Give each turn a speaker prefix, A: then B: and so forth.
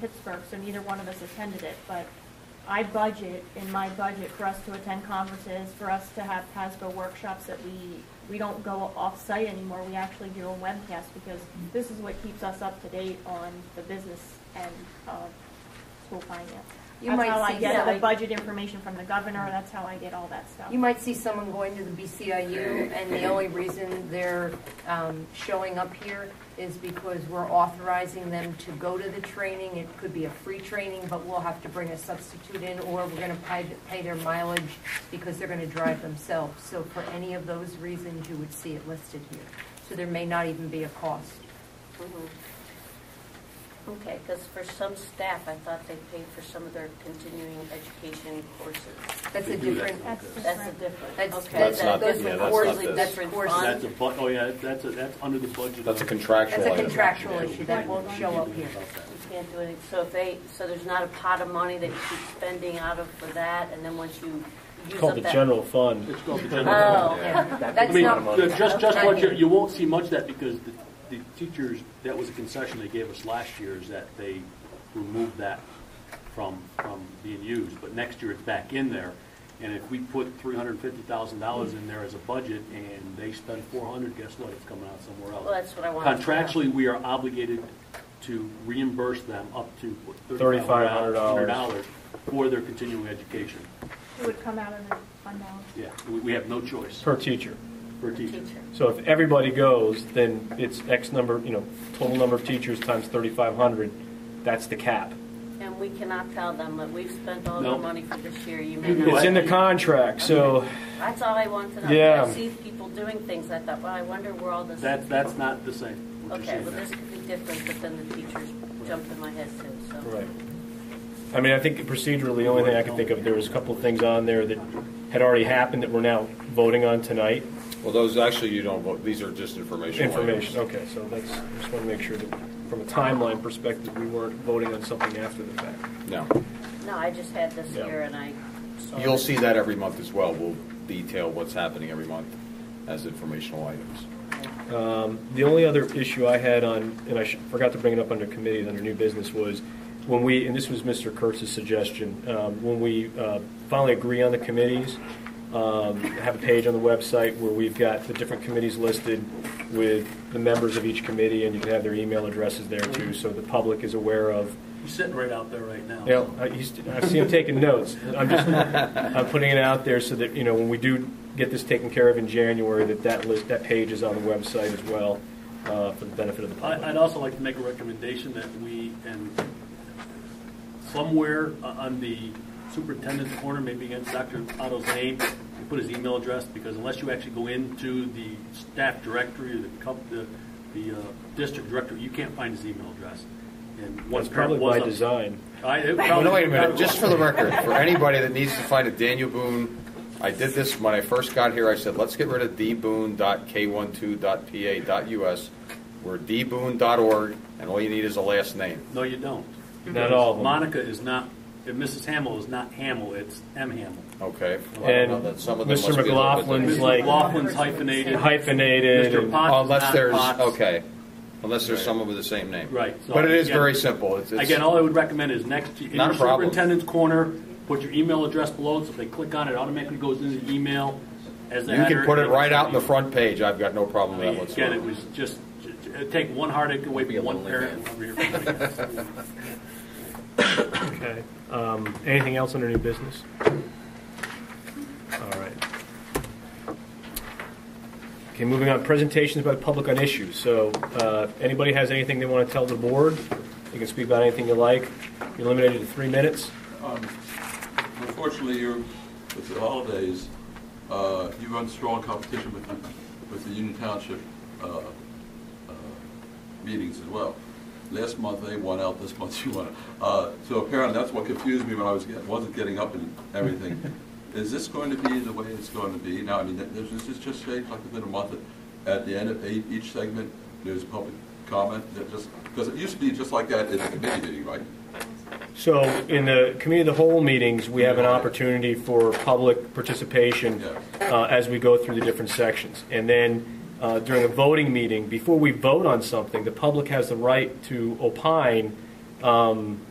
A: Pittsburgh, so neither one of us attended it, but I budget in my budget for us to attend conferences, for us to have PASBO workshops that we, we don't go off-site anymore, we actually do a webcast because this is what keeps us up to date on the business and, uh, school finance.
B: You
A: That's
B: might
A: how I
B: see
A: get the
B: somebody-
A: budget information from the governor, that's how I get all that stuff.
B: You might see someone going to the BCIU, and the only reason they're um, showing up here is because we're authorizing them to go to the training. It could be a free training, but we'll have to bring a substitute in, or we're going to pay, pay their mileage because they're going to drive themselves. So for any of those reasons, you would see it listed here. So there may not even be a cost.
C: Mhm. Mm-hmm. Okay, because for some staff, I thought they paid for some of their continuing education courses.
B: That's
D: We
B: a
D: do that.
B: different,
A: That's
C: That's a
A: different.
C: different,
B: That's-
C: okay.
D: That's not-
C: that-
D: yeah,
C: those
D: that's
C: were
D: not
C: quarterly
D: this.
C: different
B: That's
C: funds.
D: That's a bu, oh yeah, that's a, that's under the budget.
E: That's a contractual
B: that's a
E: item.
B: contractual issue that won't show up here.
C: You can't do anything, so if they, so there's not a pot of money that you keep spending out of for that, and then once you use up
F: It's
C: that.
F: called the general fund.
D: It's called the general.
C: Oh,
B: Yeah,
D: I
B: That's
D: mean,
B: not,
D: the- just, just what you,
B: Okay.
D: you won't see much of that because the, the teachers, that was a concession they gave us last year is that they removed that from, from being used. But next year it's back in there. And if we put three hundred and fifty thousand dollars in there as a budget and they spend four hundred, guess what? It's coming out somewhere else.
C: Well, that's what I wanted to know.
D: Contractually, we are obligated to reimburse them up to what,
F: $3,500.
D: $3,500 for their continuing education.
A: It would come out of the fund balance.
D: Yeah, we, we have no choice
F: per teacher.
D: for a teacher.
C: Teacher.
F: So if everybody goes, then it's X number, you know, total number of teachers times 3,500, that's the cap.
C: And we cannot tell them that we've spent all the
D: No.
C: money for this year, you may
D: You do
C: not.
F: It's in the contract, so
C: That's all I want to know.
F: Yeah.
C: I see people doing things, I thought, well, I wonder where all this.
D: That, that's not the same. what you're
C: Okay,
D: saying
C: well,
D: there.
C: this could be different, but then the teachers jumped in my head too, so.
F: Right. I mean, I think procedurally, the only thing I could think of, there was a couple of things on there that had already happened that we're now voting on tonight.
E: Well, those actually you don't vote, these are just informational items.
F: Information, okay, so that's, just want to make sure that, from a timeline perspective, we weren't voting on something after the fact.
E: No.
C: No, I just had this
F: Yeah.
C: here and I saw.
E: You'll
C: it.
E: see that every month as well. We'll detail what's happening every month as informational items.
F: The only other issue I had on, and I sh- forgot to bring it up under committees, under new business, was when we, and this was Mr. Kurtz's suggestion, um, when we uh, finally agree on the committees, um, have a page on the website where we've got the different committees listed with the members of each committee, and you can have their email addresses there too, so the public is aware of,
D: He's sitting right out there right now.
F: yeah, I, he's, I see him taking notes. I'm just, I'm putting it out there so that, you know, when we do get this taken care of in January, that that list, that page is on the website as well, uh, for the benefit of the
D: I- I'd
F: public.
D: also like to make a recommendation that we, and somewhere o- on the superintendent's corner, maybe against Dr. Otto's name, you put his email address, because unless you actually go into the staff directory or the, comp- the, the uh, district directory, you can't find his email address. And one
F: That's
D: parent
F: probably
D: was.
F: by
D: up-
F: design.
D: I- it
E: Oh,
D: probably-
E: no, wait a minute, just for the record, for anybody that needs to find a Daniel Boone, I did this when I first got here, I said, let's get rid of dboone.k12.pa.us. We're dboone.org, and all you need is a last name.
D: No, you don't.
F: Not all of them.
D: Monica is not, and Mrs. Hamill is not Hamill, it's M. Hamill.
E: Okay. Well, I don't
F: And
E: know that some of them
F: Mr.
E: must be a little bit
F: McLaughlin's
E: different.
D: Mrs.
F: like-
D: Laughlin's hyphenated.
F: Hyphenated.
D: Mr.
F: and-
D: Potts.
E: Oh, Unless
D: not
E: there's,
D: Potts.
E: okay, unless there's someone with the same name.
D: Right, so
E: But it is
D: again-
E: very simple. It's- it's-
D: Again, all I would recommend is next, to- in your
E: Not a problem.
D: superintendent's corner, put your email address below, so if they click on it, it automatically goes into the email as the
E: You
D: header.
E: can put it
D: and
E: right out in the
D: everything.
E: front page, I've got no problem with that
D: Again, it
E: whatsoever.
D: was just, it'd take one heartache away
E: Be a
D: from one
E: lonely
D: parent. over here.
F: Okay. Um, Anything else under new business? All right. Okay, moving on, presentations by the public on issues. So uh, if anybody has anything they want to tell the board, you can speak about anything you like. You're limited to three minutes.
G: Unfortunately, you're, with the holidays, uh, you run strong competition with, the- with the Union Township uh, uh, meetings as well. Last month they won out, this month you won. out. Uh, So apparently, that's what confused me when I was, get- wasn't getting up and everything. Is this going to be the way it's going to be? Now, I mean, this this is just shaped like within a month. At the end of eight- each segment, there's public comment, that just, because it used to be just like that at the committee meeting, right?
F: So in the committee of the whole meetings, we have an opportunity for public participation uh, as we go through the different sections. And then uh, during a voting meeting, before we vote on something, the public has the right to opine um,